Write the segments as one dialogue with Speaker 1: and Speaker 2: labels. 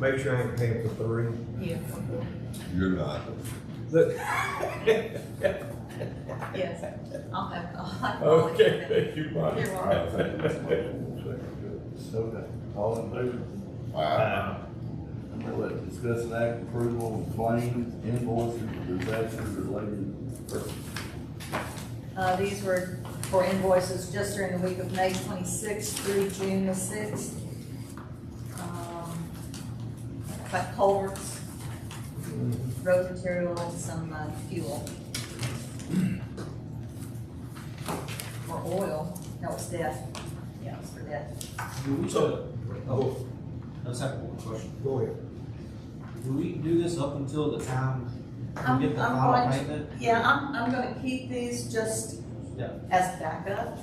Speaker 1: Make sure I ain't paying for three.
Speaker 2: Yes,
Speaker 3: You're not.
Speaker 1: Look.
Speaker 2: yes. I'll have, I'll have.
Speaker 4: Okay, thank you, Bonnie.
Speaker 2: You're welcome.
Speaker 3: I think it's good.
Speaker 5: Okay, all in
Speaker 2: Uh,
Speaker 5: favor?
Speaker 3: Wow.
Speaker 5: Number eleven, discuss an act approval of claims, invoices, disaster related purposes.
Speaker 2: Uh, these were for invoices just during the week of May twenty-sixth through June the sixth. But culverts, road material, and some uh, fuel. Or oil, that was death, yeah, it was for death.
Speaker 6: Do we,
Speaker 1: So-
Speaker 6: do-
Speaker 1: Oh,
Speaker 6: I just have one question.
Speaker 1: go ahead.
Speaker 6: Do we do this up until the time
Speaker 2: I'm-
Speaker 6: we get the
Speaker 2: I'm
Speaker 6: final
Speaker 2: going to-
Speaker 6: payment?
Speaker 2: Yeah, I'm, I'm gonna keep these just
Speaker 6: Yeah.
Speaker 2: as backup.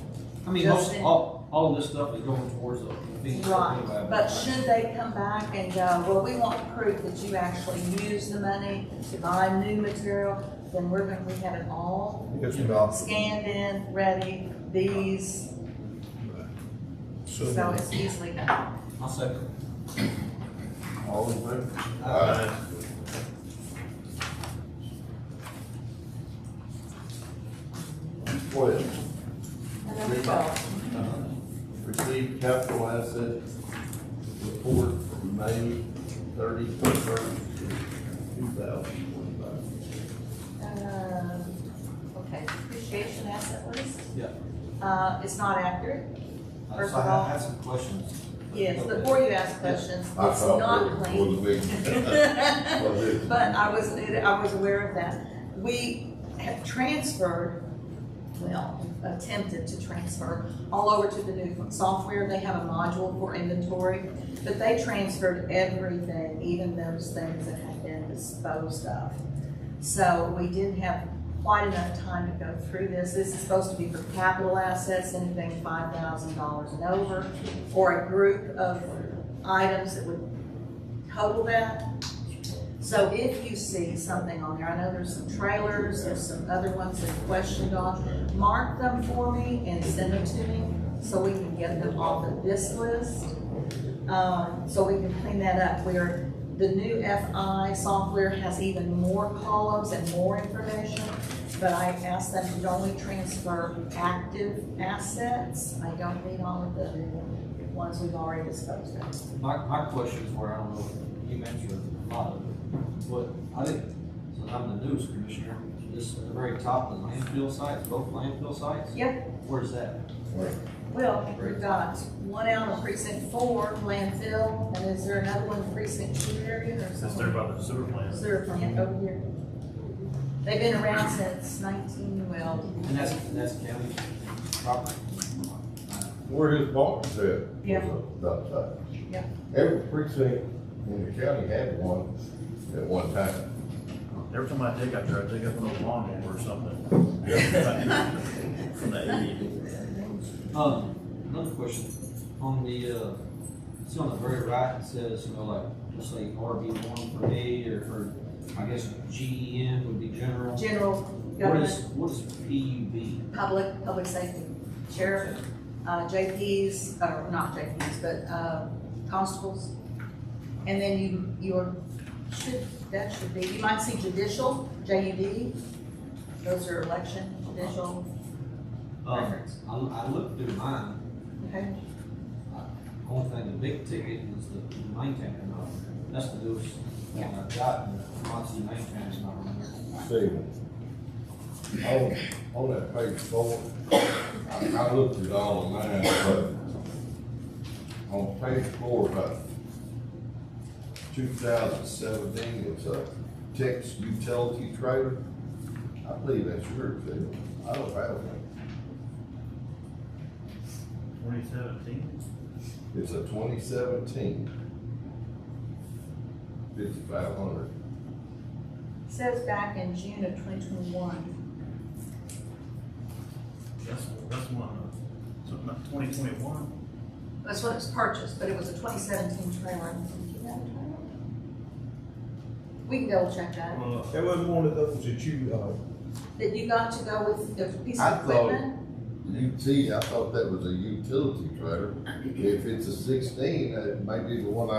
Speaker 6: I mean, most,
Speaker 2: Justin.
Speaker 6: all, all of this stuff is going towards the. fee anyway,
Speaker 2: Right, but should they come back and go, well, we want proof that you actually used the money to buy new material, then we're gonna, we have it all
Speaker 1: Yes, ma'am.
Speaker 2: scanned in, ready, these, so it's easily done.
Speaker 6: I'll second.
Speaker 5: All in favor?
Speaker 2: uh,
Speaker 3: Aye.
Speaker 5: Twelve,
Speaker 2: And then we go,
Speaker 5: receive capital asset report from May thirty-first, two thousand twenty-five.
Speaker 2: um, okay, depreciation asset list,
Speaker 6: Yeah.
Speaker 2: uh, it's not accurate,
Speaker 6: Uh,
Speaker 2: First
Speaker 6: So I
Speaker 2: of
Speaker 6: have-
Speaker 2: all-
Speaker 6: I have some questions.
Speaker 2: yes, before you ask questions,
Speaker 3: I
Speaker 2: it's
Speaker 3: thought
Speaker 2: not
Speaker 3: it
Speaker 2: clean.
Speaker 3: was big. Was it?
Speaker 2: But I was, I was aware of that. We have transferred, well, attempted to transfer all over to the new software. They have a module for inventory, but they transferred everything, even those things that had been disposed of. So we didn't have quite enough time to go through this. This is supposed to be for capital assets, anything five thousand dollars and over, or a group of items that would total that. So if you see something on there, I know there's some trailers, there's some other ones that are questioned on, mark them for me and send them to me so we can get them off of this list. Um, so we can clean that up where the new FI software has even more columns and more information. But I asked them to only transfer active assets. I don't need all of the ones we've already disposed of.
Speaker 6: My, my questions were, I don't know, if you mentioned a lot of it, but I think, since I'm the news commissioner, this, at the very top, the landfill sites, both landfill sites?
Speaker 2: Yep.
Speaker 6: Where's that?
Speaker 2: Well, we've got one out of precinct four, landfill, and is there another one in precinct two area or
Speaker 7: Since they're
Speaker 2: something?
Speaker 7: about the sewer plant.
Speaker 2: Sewer plant over here. They've been around since nineteen, well,
Speaker 6: And that's, that's county property.
Speaker 3: Where his boss is at.
Speaker 2: Yeah.
Speaker 3: About that.
Speaker 2: Yeah.
Speaker 3: Every precinct in the county had one at one time.
Speaker 7: Every time I dig, I try to dig up a little lawnmower or something. From the eighties.
Speaker 6: Um, another question, on the, uh, see on the very right, it says, you know, like, just say RB one for me, or for, I guess, GEM would be general.
Speaker 2: general
Speaker 6: What is,
Speaker 2: government,
Speaker 6: what is E PUB?
Speaker 2: public, public safety, sheriff, uh, JPs, or not JPs, but, uh, constables. And then you, your, should, that should be, you might see judicial, JUD, those are election, judicial
Speaker 6: Um,
Speaker 2: records.
Speaker 6: I, I looked through mine,
Speaker 2: Okay,
Speaker 6: only thing, the big ticket is the maintainer, not, uh, that's the newest thing I've got, and the Monty maintainer's not on there.
Speaker 3: Steven. On, on that page four, I, I looked at all of mine, but on page four, about two thousand seventeen, it's a Texas utility trailer. I believe that's yours, Steven. I don't have one.
Speaker 7: Twenty seventeen?
Speaker 3: It's a twenty seventeen. Fifty-five hundred.
Speaker 2: says back in June of twenty twenty-one,
Speaker 7: That's, that's one, uh, something like twenty twenty-one.
Speaker 2: that's when it was purchased, but it was a twenty seventeen trailer. We can double check that,
Speaker 7: Well,
Speaker 1: That was one of those that you, uh,
Speaker 2: that you got to go with the piece
Speaker 3: I
Speaker 2: of
Speaker 3: thought-
Speaker 2: equipment,
Speaker 3: UT, I thought that was a utility trailer. If it's a sixteen, that might be the one I